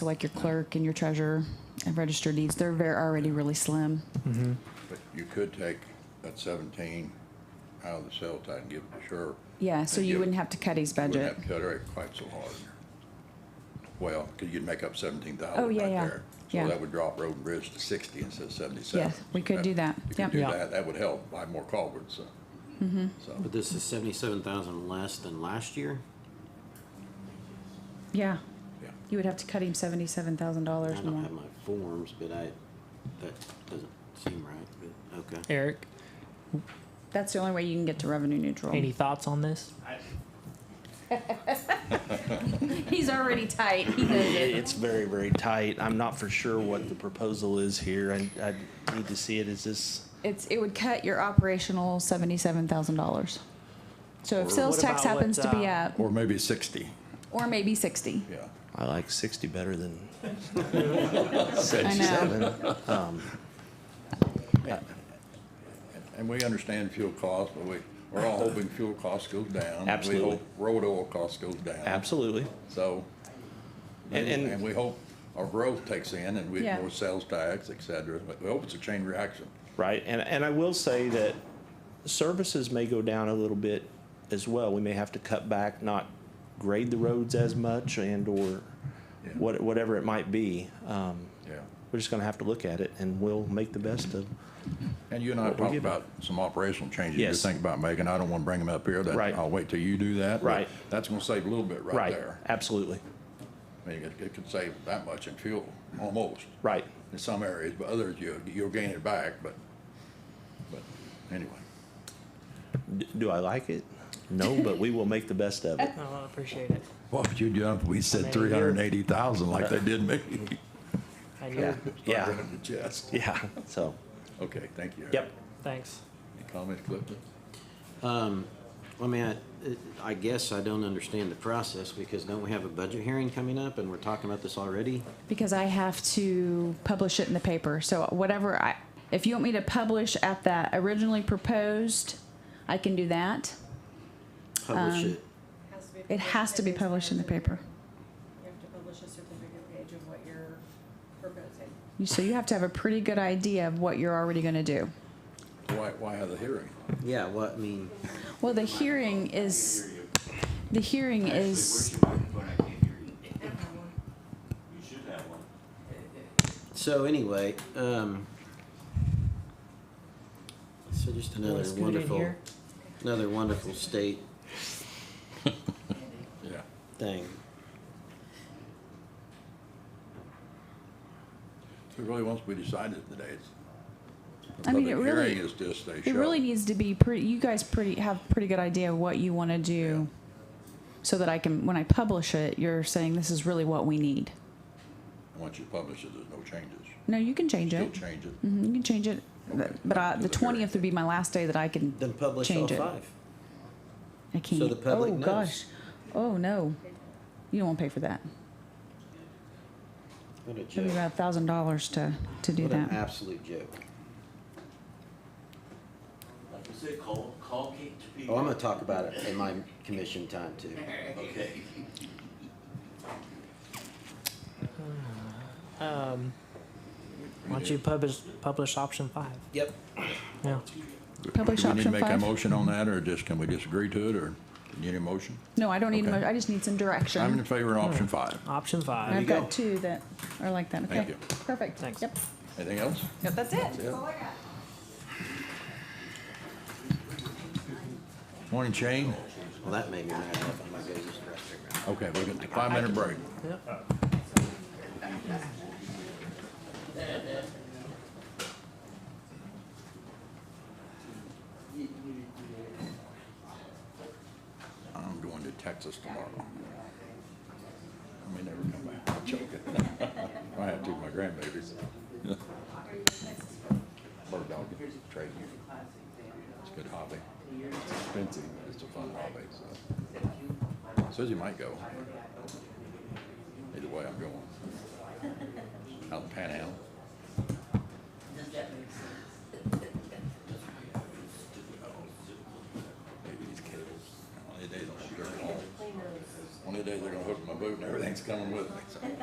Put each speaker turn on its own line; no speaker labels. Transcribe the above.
So like your clerk and your treasurer and registered deeds, they're very, already really slim.
But you could take that seventeen out of the cell tax and give it to sheriff.
Yeah, so
And
you
give-
wouldn't have to cut his
Wouldn't
budget.
have to cut it quite so hard. Well, because you'd make up seventeen thousand
Oh,
right
yeah, yeah.
there.
Yeah.
So that would drop road and bridge to sixty instead of seventy-seven.
Yes, we could do that.
You
Yep. Mm-hmm.
could do
Yeah.
that, that would help buy more culverts, so. So,
But this is seventy-seven thousand less than last year?
Yeah,
yeah.
you would have to cut him seventy-seven thousand dollars
I don't
more.
have my forms, but I, that doesn't seem right, but, okay.
Eric,
That's the only way you can get to revenue neutral.
any thoughts on this?
He's already tight. He knows
It-
it.
It's very, very tight. I'm not for sure what the proposal is here. I, I need to see it. Is this,
It's, it would cut your operational seventy-seven thousand dollars. So if
Or
sales
what
tax
about what,
happens to be
uh,
up,
Or maybe sixty,
or maybe sixty.
yeah.
I like sixty better than
I know.
seventy-seven.
And we understand fuel costs, but we, we're all hoping fuel costs goes down.
Absolutely.
We hope road oil costs goes down.
Absolutely.
So,
And- and-
and we hope our growth takes in and we
Yeah.
have more sales tax, et cetera. But we hope it's a chain reaction.
Right. And, and I will say that services may go down a little bit as well. We may have to cut back, not grade the roads as much and or
Yeah.
what, whatever it might be. Um,
Yeah.
we're just gonna have to look at it and we'll make the best of.
And you and I
What we
talked
give-
about some operational changes you're
Yes.
thinking about making. I don't want to bring them up here. That-
Right.
I'll wait till you do that. but
Right.
That's going to save a little bit right there.
Absolutely.
I mean, it- it could save that much in fuel, almost.
Right.
In some areas, but others you, you'll gain it back, but, but anyway.
D- Do I like it? No, but we will make the best of it.
Oh, I appreciate it.
What would you do if we
I
said
mean,
three
you're-
hundred and eighty thousand like they did me?
I
Yeah,
know.
yeah,
Right in the chest.
yeah, so,
Okay, thank you.
yep.
Thanks.
Any comments, Clifton?
I mean, I, I guess I don't understand the process, because don't we have a budget hearing coming up, and we're talking about this already?
Because I have to publish it in the paper. So whatever I, if you want me to publish at that originally proposed, I can do that.
Publish
Um.
it.
It has to be published in the paper.
You have to publish a certificate page of what you're proposing.
You- So you have to have a pretty good idea of what you're already gonna do.
Why, why have the hearing?
Yeah, what, I mean,
Well, the hearing is, the hearing is,
Actually, where's your microphone? I can't hear you. You should have one.
so anyway, um, so just another
scoot in
wonderful,
here?
another wonderful state
Yeah.
thing.
So really, once we decide it today, it's. the
I mean, it
public
really-
Hearing is just a show.
it really needs to be pretty, you guys pretty, have pretty good idea of what you wanna do. So that I can, when I publish it, you're saying this is really what we need.
Once you publish it, there's no changes.
No, you can change
Still
it.
change it.
Mhm, You can change it,
Okay.
but I, the
Is it here?
twentieth would be my last day that I can
Then publish all
change it.
five.
I can't.
the public
oh
knows.
gosh. Oh no. You don't want to pay for that.
What a
It'll be
joke.
about a thousand dollars to to do
What an
that.
absolute joke.
Like I said, call, call Kate Topeka.
Oh, I'm gonna talk about it in my commission time too.
Okay.
Um, why don't you publish, publish option five?
Yep.
Yeah.
Publish
Do we need to
option
make a
five.
motion on that, or just, can we disagree to it, or do you need a motion?
No, I don't need. a
Okay.
mo- I just need some direction.
I'm in favor of option five.
Option
And
five.
I've got two that are like that. Okay.
Thank you.
Perfect.
Thanks.
Yep.
Anything else?
Yep. That's it.
Morning, Shane.
Well, that made me mad. I'm gonna go use the restroom.
Okay, we're getting a five-minute break. I'm going to Texas tomorrow. I may never come back. I'm joking. I have to, my grandbabies. Bird dog, trade you. It's a good hobby. It's expensive, but it's a fun hobby, so. Susie might go. Either way, I'm going. Out in the Panhandle. Maybe these kids, one of these days I'm gonna be very old. One of these days they're gonna hook my boot and everything's coming with me, so.